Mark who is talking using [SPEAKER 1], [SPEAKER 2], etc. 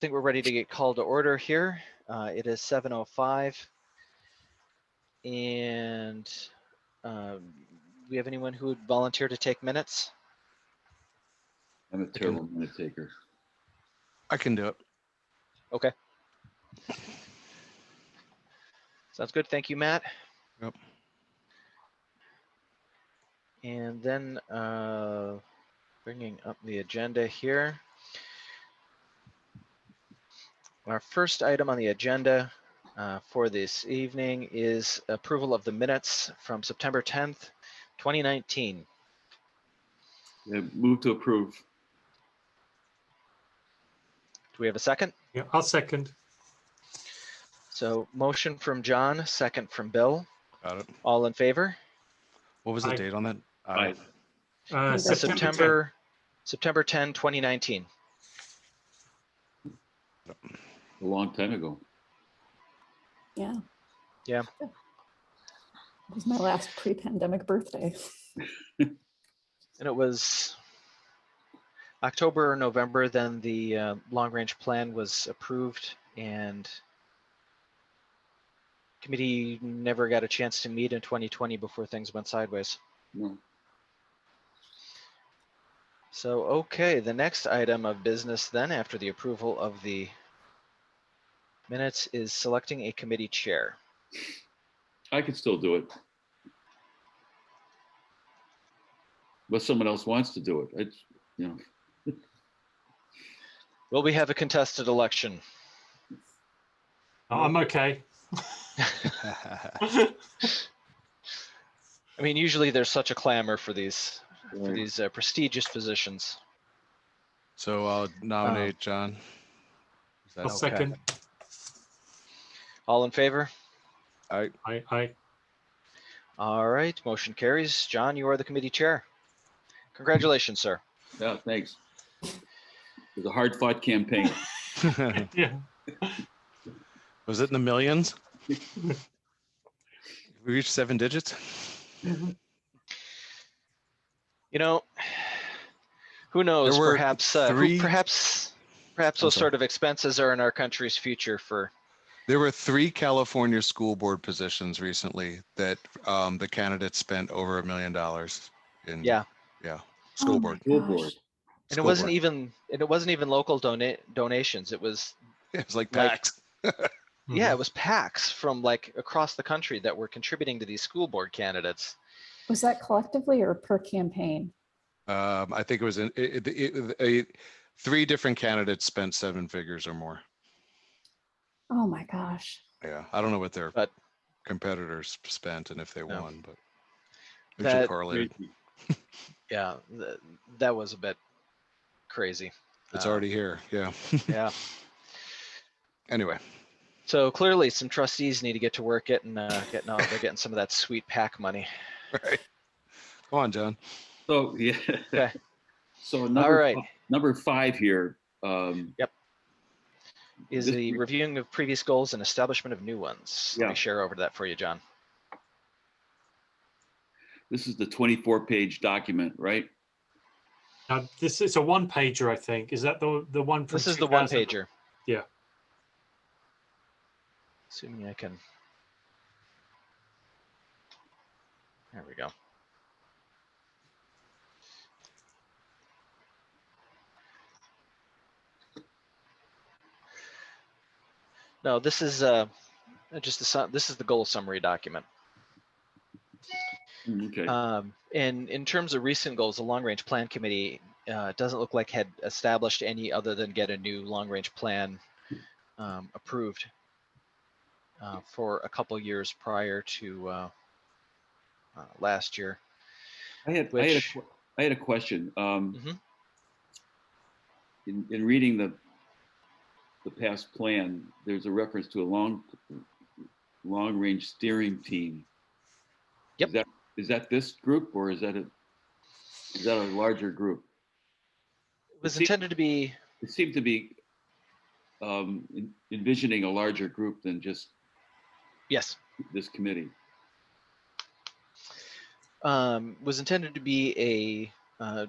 [SPEAKER 1] think we're ready to get called to order here. Uh, It is 7:05. And um, we have anyone who would volunteer to take minutes?
[SPEAKER 2] I'm a terrible minute taker.
[SPEAKER 3] I can do it.
[SPEAKER 1] Sounds good. Thank you, Matt.
[SPEAKER 3] Yep.
[SPEAKER 1] And then uh, bringing up the agenda here. Our first item on the agenda uh, for this evening is approval of the minutes from September 10th, 2019.
[SPEAKER 2] Yeah, Move to approve.
[SPEAKER 1] Do we have a second?
[SPEAKER 4] Yeah, I'll second.
[SPEAKER 1] So motion from John, second from Bill.
[SPEAKER 3] Got it.
[SPEAKER 1] All in favor?
[SPEAKER 3] What was the
[SPEAKER 4] Aye.
[SPEAKER 3] date on that? I
[SPEAKER 2] Aye.
[SPEAKER 3] don't-
[SPEAKER 4] Uh,
[SPEAKER 1] Uh,
[SPEAKER 4] tenth.
[SPEAKER 1] September, September 10, 2019.
[SPEAKER 2] A long time ago.
[SPEAKER 5] Yeah.
[SPEAKER 1] Yeah.
[SPEAKER 5] It was my last pre-pandemic birthday. Oh
[SPEAKER 1] And it was October or November, then the uh, long range plan was approved and committee never got a chance to meet in 2020 before things went sideways.
[SPEAKER 2] No.
[SPEAKER 1] So, okay, the next item of business then, after the approval of the minutes, is selecting a committee chair.
[SPEAKER 2] I could still do it. But someone else wants to do it. It's, you know,
[SPEAKER 1] Will we have a contested election?
[SPEAKER 4] Oh, I'm okay.
[SPEAKER 1] I mean, usually there's such a clamor for these, for
[SPEAKER 2] Right.
[SPEAKER 1] these uh, prestigious positions.
[SPEAKER 3] So I'll nominate John. Is that
[SPEAKER 4] I'll
[SPEAKER 3] okay?
[SPEAKER 4] second.
[SPEAKER 1] All in favor?
[SPEAKER 3] I,
[SPEAKER 4] I, I,
[SPEAKER 1] All right, motion carries. John, you are the committee chair. Congratulations, sir.
[SPEAKER 2] yeah, thanks. It was a hard fought campaign.
[SPEAKER 3] oh,
[SPEAKER 4] yeah,
[SPEAKER 3] was it in the millions? We reached seven digits?
[SPEAKER 1] You know, who knows?
[SPEAKER 3] were
[SPEAKER 1] Perhaps, uh, who,
[SPEAKER 3] three-
[SPEAKER 1] perhaps, perhaps
[SPEAKER 3] I'm
[SPEAKER 1] those
[SPEAKER 3] sorry.
[SPEAKER 1] sort of expenses are in our country's future for
[SPEAKER 3] There were three California school board positions recently that um, the candidates spent over a million dollars in.
[SPEAKER 1] Yeah.
[SPEAKER 3] Yeah,
[SPEAKER 5] Oh
[SPEAKER 3] school
[SPEAKER 5] my
[SPEAKER 3] board.
[SPEAKER 2] School
[SPEAKER 5] gosh.
[SPEAKER 2] board.
[SPEAKER 1] and it
[SPEAKER 3] school
[SPEAKER 1] wasn't
[SPEAKER 3] board.
[SPEAKER 1] even and it wasn't even local donate donations it was
[SPEAKER 3] It was like
[SPEAKER 1] like-
[SPEAKER 3] PAX.
[SPEAKER 4] mm.
[SPEAKER 3] Mm-hmm.
[SPEAKER 1] yeah it was pacs from like across the country that were contributing to these school board candidates
[SPEAKER 5] Was that collectively or per campaign?
[SPEAKER 3] Um, I think it was, in- it, it, it, a- three different candidates spent seven figures or more.
[SPEAKER 5] Oh my gosh.
[SPEAKER 3] Yeah, I don't know what their
[SPEAKER 1] But-
[SPEAKER 3] competitors spent and if they
[SPEAKER 1] No.
[SPEAKER 3] won, but. we
[SPEAKER 1] That-
[SPEAKER 3] should correlate. it.
[SPEAKER 1] yeah th- that was a bit crazy
[SPEAKER 3] It's
[SPEAKER 1] uh,
[SPEAKER 3] already here. Yeah.
[SPEAKER 1] yeah
[SPEAKER 3] Anyway,
[SPEAKER 1] so clearly some trustees need to get to work getting uh, getting out there getting some of that sweet pac money
[SPEAKER 3] right. Come on, John.
[SPEAKER 2] So, yeah.
[SPEAKER 1] Okay.
[SPEAKER 2] So
[SPEAKER 1] all
[SPEAKER 2] number,
[SPEAKER 1] right
[SPEAKER 2] number five here. um,
[SPEAKER 1] is
[SPEAKER 2] This
[SPEAKER 1] the
[SPEAKER 2] re-
[SPEAKER 1] reviewing of previous goals and establishment of new ones let
[SPEAKER 2] Yeah.
[SPEAKER 1] me share over to that for you john
[SPEAKER 2] This is the 24 page document, right?
[SPEAKER 4] Now, this is a one pager, I think. Is that the the one? From
[SPEAKER 1] this is the one
[SPEAKER 4] 2000?
[SPEAKER 1] pager
[SPEAKER 4] Yeah.
[SPEAKER 1] assuming i can there we go no this is uh just the su- this is the goal summary document
[SPEAKER 2] Mm, Okay.
[SPEAKER 1] um, and in terms of recent goals, the long range plan committee uh, doesn't look like had established any other than get a new long range plan um, approved uh, for a couple years prior to uh, uh, last year.
[SPEAKER 2] I had, I had, a
[SPEAKER 1] Which-
[SPEAKER 2] que- I had a question. Um,
[SPEAKER 1] Mhm.
[SPEAKER 2] in, in reading the, the past plan, there's a reference to a long, long-range steering team.
[SPEAKER 1] Yep.
[SPEAKER 2] Is that, is that this group or is that a, is that a larger group?
[SPEAKER 1] It was
[SPEAKER 2] See-
[SPEAKER 1] intended to be,
[SPEAKER 2] It seemed to be um, en- envisioning a larger group than just
[SPEAKER 1] yes,
[SPEAKER 2] this committee.
[SPEAKER 1] um, was intended to be a uh,